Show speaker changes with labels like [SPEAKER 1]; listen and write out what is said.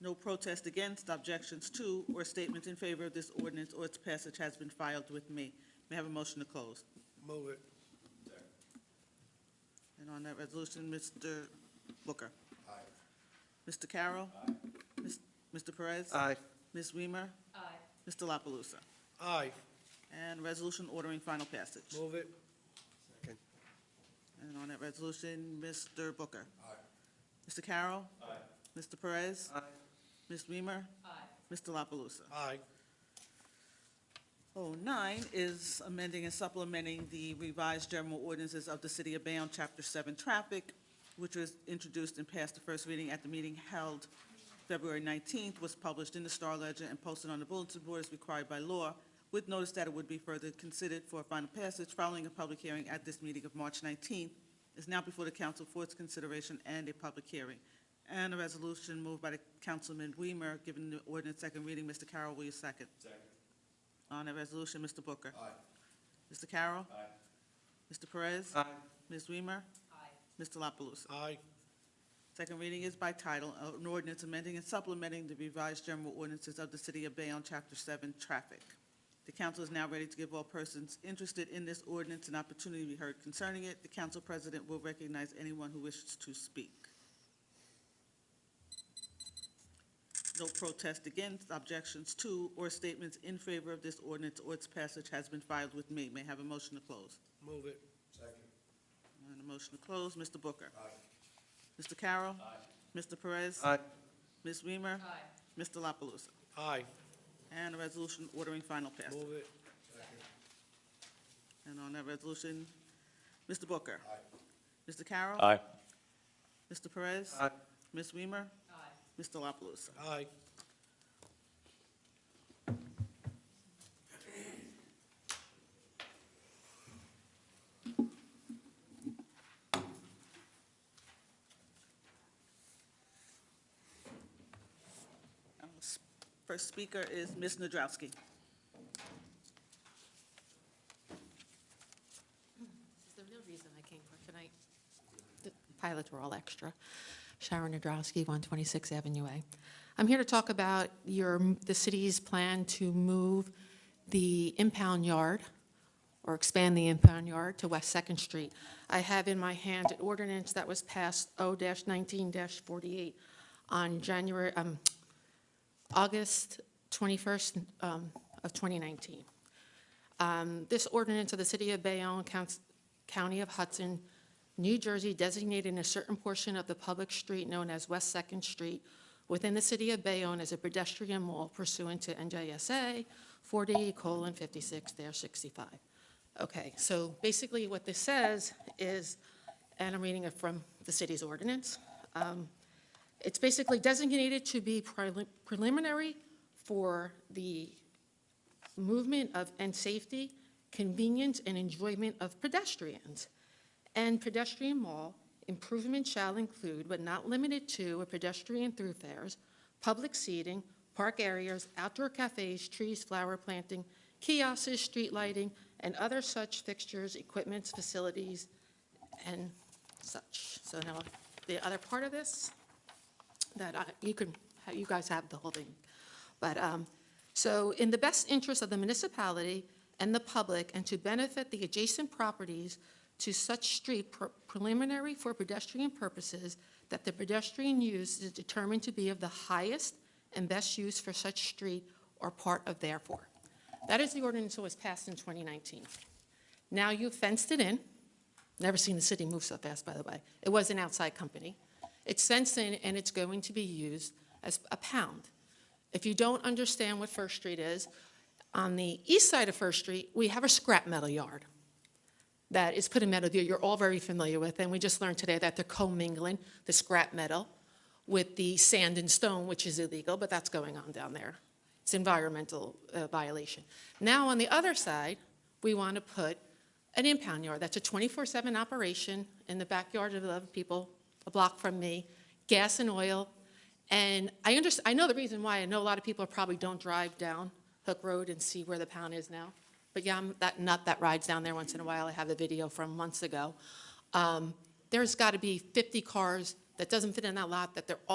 [SPEAKER 1] No protest against, objections to, or statements in favor of this ordinance or its passage has been filed with me. May I have a motion to close?
[SPEAKER 2] Move it.
[SPEAKER 1] And on that resolution, Mr. Booker? Aye. Mr. Carroll? Aye. Mr. Perez?
[SPEAKER 2] Aye.
[SPEAKER 1] Ms. Weimer? Aye. Mr. La Palusa?
[SPEAKER 2] Aye.
[SPEAKER 1] And resolution ordering final passage.
[SPEAKER 2] Move it. Second.
[SPEAKER 1] And on that resolution, Mr. Booker? Aye. Mr. Carroll? Aye. Mr. Perez?
[SPEAKER 2] Aye.
[SPEAKER 1] Ms. Weimer? Aye. Mr. La Palusa?
[SPEAKER 2] Aye.
[SPEAKER 1] Oh, nine is amending and supplementing the revised general ordinances of the City of Bayonne, Chapter Seven Traffic, which was introduced and passed the first reading at the meeting held February nineteenth, was published in the Star Ledger and posted on the bulletin board as required by law, with notice that it would be further considered for final passage following a public hearing at this meeting of March nineteenth, is now before the council for its consideration and a public hearing. And a resolution moved by the Councilman Weimer, given the ordinance second reading. Mr. Carroll, will you second? On the resolution, Mr. Booker. Aye. Mr. Carroll. Aye. Mr. Perez.
[SPEAKER 2] Aye.
[SPEAKER 1] Ms. Weimer. Aye. Mr. La Palusa.
[SPEAKER 2] Aye.
[SPEAKER 1] Second reading is by title, uh, an ordinance amending and supplementing the revised general ordinances of the City of Bayonne, Chapter 7, Traffic. The council is now ready to give all persons interested in this ordinance an opportunity to be heard concerning it. The council president will recognize anyone who wishes to speak. No protest against, objections to, or statements in favor of this ordinance or its passage has been filed with me. May I have a motion to close.
[SPEAKER 2] Move it.
[SPEAKER 1] And a motion to close, Mr. Booker. Mr. Carroll. Aye. Mr. Perez.
[SPEAKER 2] Aye.
[SPEAKER 1] Ms. Weimer? Aye. Mr. La Palusa?
[SPEAKER 2] Aye.
[SPEAKER 1] And a resolution ordering final passage.
[SPEAKER 2] Move it.
[SPEAKER 1] And on that resolution, Mr. Booker? Aye. Mr. Carroll?
[SPEAKER 3] Aye.
[SPEAKER 1] Mr. Perez?
[SPEAKER 2] Aye.
[SPEAKER 1] Ms. Weimer? Aye. Mr. La Palusa?
[SPEAKER 2] Aye.
[SPEAKER 1] Our s- First speaker is Ms. Nadrowski.
[SPEAKER 4] This is the real reason I came for tonight. The pilots were all extra. Sharon Nadrowski, 126 Avenue A. I'm here to talk about your, the city's plan to move the impound yard, or expand the impound yard to West Second Street. I have in my hand an ordinance that was passed oh O-19-48 on January, um, August 21st um, of 2019. Um, This ordinance of the City of Bayonne, Counts- County of Hudson, New Jersey designating a certain portion of the public street known as West Second Street within the City of Bayonne as a pedestrian mall pursuant to NJSA 40:56-65. Okay, so basically what this says is, and I'm reading it from the city's ordinance, um, it's basically designated to be prelim- preliminary for the movement of, and safety, convenience, and enjoyment of pedestrians. And pedestrian mall improvement shall include, but not limited to, a pedestrian thoroughfares, public seating, park areas, outdoor cafes, trees, flower planting, kiosks, street lighting, and other such fixtures, equipments, facilities, and such. So now, the other part of this, that I- you can, you guys have the whole thing. But, um, so in the best interest of the municipality and the public, and to benefit the adjacent properties to such street pre- preliminary for pedestrian purposes, that the pedestrian use is determined to be of the highest and best use for such street or part of therefore. That is the ordinance that was passed in 2019. Now you fenced it in. Never seen the city move so fast, by the way. It was an outside company. It's fenced in, and it's going to be used as a pound. If you don't understand what First Street is, on the east side of First Street, we have a scrap metal yard that is put in metal that you're all very familiar with, and we just learned today that they're commingling the scrap metal with the sand and stone, which is illegal, but that's going on down there. It's environmental uh, violation. Now, on the other side, we want to put an impound yard. That's a 24/7 operation in the backyard of 11 people, a block from me, gas and oil. And I under, I know the reason why. I know a lot of people probably don't drive down Hook Road and see where the pound is now. But yeah, I'm that nut that rides down there once in a while. I have a video from months ago. Um, There's got to be 50 cars that doesn't fit in that lot, that they're all.